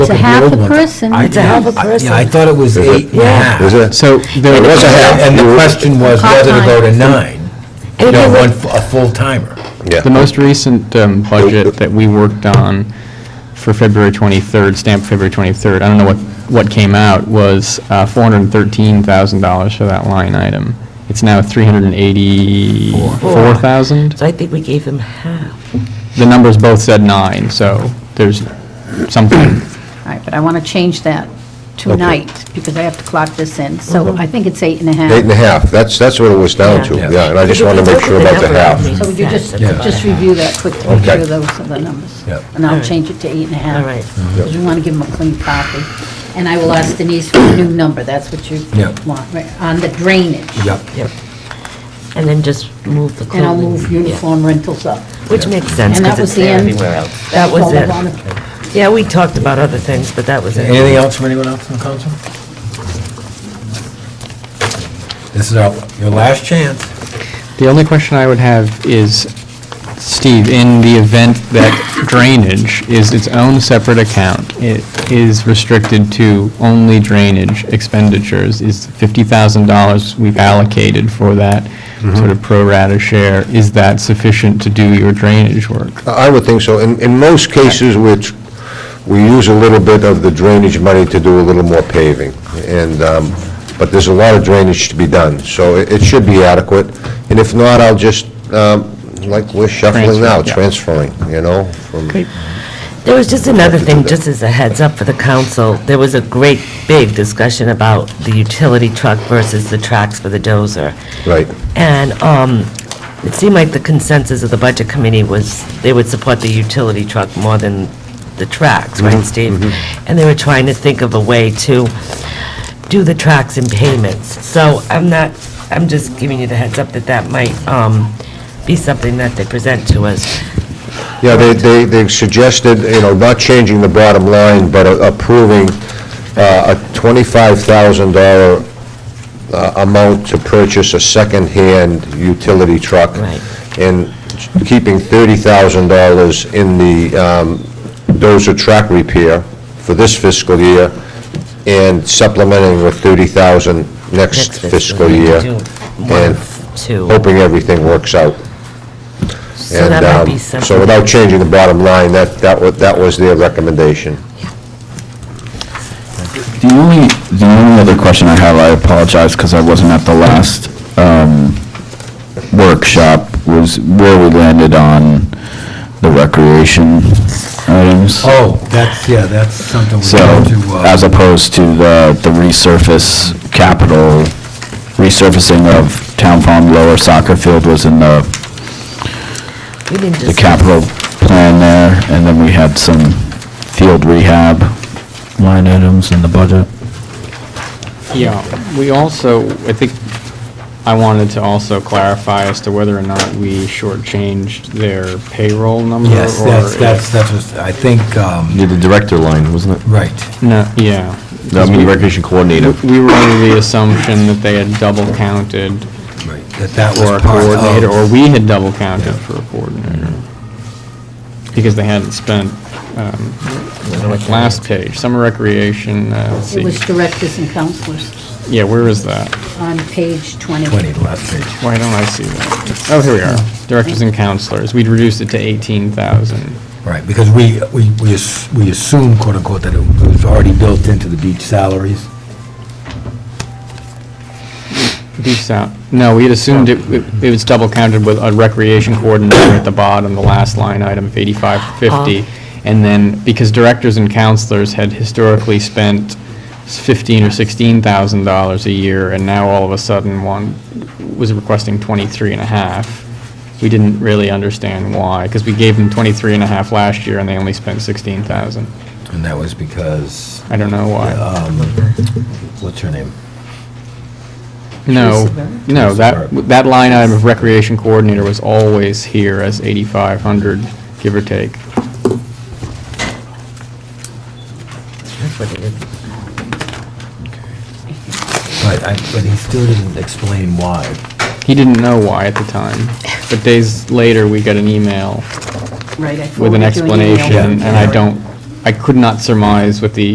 It's a half a person. I- It's a half a I- person. Yeah, I thought it was Is eight it? and a half. Is it? So It there, was a half. And the question was Part-time. whether to go to nine, And no, it one, was- f- a full-timer. Yeah. the most recent um, budget that we worked on for February 23rd, stamped February 23rd, I don't know what, what came out, was uh, $413,000 for that line item. It's now 384,000. So I think we gave him half. The numbers both said nine, so there's something All right, but I want to change that tonight, because I have to clock this in. So I think it's eight and a half. Uh-huh. Eight and a half, that's, that's what it was down to, Yeah. yeah, and I just If want to you make look at sure the about the number, half. it So would you just, That's about just it. review that quickly, make Okay. sure those are the numbers? Yep. And I'll Alright. change it to eight and a half. Alright. Because we want to give them a clean copy. And I will ask Denise for a new number, that's what you Yep. want, right, on the drainage. Yep. And then just move the clothing. And I'll move Yeah. uniform rentals up. Which makes sense, And that was because it's the there end. everywhere else. That was all I wanted. it. Yeah, we talked about other things, but that was it. Anything else from anyone else in the council? This is our, your last chance. The only question I would have is, Steve, in the event that drainage is its own separate account, it is restricted to only drainage expenditures, is $50,000 we've allocated for that Mm-hmm. sort of pro rata share, is that sufficient to do your drainage work? I would think so. In, in most cases, which, we use a little bit of the drainage money to do a little more paving, and, um, but there's a lot of drainage to be done, so it, it should be adequate, and if not, I'll just, um, like we're shuffling now, Transfer, transferring, you know, from... Great. There was just another thing, just as a heads up for the council, there was a great big discussion about the utility truck versus the tracks for the dozer. Right. And um, it seemed like the consensus of the budget committee was they would support the utility truck more than the tracks, right, Steve? And they were trying to think of a way to do the tracks in payments. So I'm not, I'm just giving you the heads up that that might um, be something that they present to us. Yeah, they, they, they suggested, you know, not changing the bottom line, but a- approving uh, a twenty-five thousand dollar uh, amount to purchase a second-hand utility truck. Right. And keeping thirty thousand dollars in the um, dozer track repair for this fiscal year and supplementing with thirty thousand next fiscal year. Do And One, two. hoping everything works out. So And that might be um, something. So without changing the bottom line, that, that was, that was their recommendation. The only, the only other question I have, I apologize because I wasn't at the last um, workshop, was where we landed on the recreation items. Oh, that's, yeah, that's something we So, have to, as uh, opposed to the, the resurface capital, resurfacing of town farm lower soccer field was in the, We didn't the discuss- capital plan there, and then we had some field rehab line items in the budget. Yeah, we also, I think, I wanted to also clarify as to whether or not we shortchanged their payroll number. yes, or that's, if- that's, that's, what I think, um, Yeah, the director line, wasn't it? right. No, yeah. No, I mean, recreation coordinator. We were under the assumption that they had double counted Right, that that for a was part coordinator, or of, we had double counted for a coordinator. Because they hadn't spent, um, like, last page, summer recreation, uh, let's It was see. directors and counselors Yeah, where is that? on page 20. 20, last page. Why don't I see that? Oh, here we are, directors and counselors, we'd reduced it to eighteen thousand. Right, because we, we, we ass- we assume quote unquote that it was already built into the beach salaries. Beefs out, no, we had assumed it, it was double counted with a recreation coordinator at the bottom, the last line item of eighty-five fifty. And then, because directors and counselors had historically spent fifteen or sixteen thousand dollars a year, and now all of a sudden one was requesting twenty-three and a half. We didn't really understand why, because we gave them twenty-three and a half last year and they only spent sixteen thousand. And that was because, I don't know why. um, what's her name? No, no, that, Sorry. that line item of recreation coordinator was always here as 8,500, give or take. That's what it is. But I, but he still didn't explain why. He didn't know why at the time, but days later, we got an email Right, I forwarded with an you an email. explanation, and I don't I could not surmise with the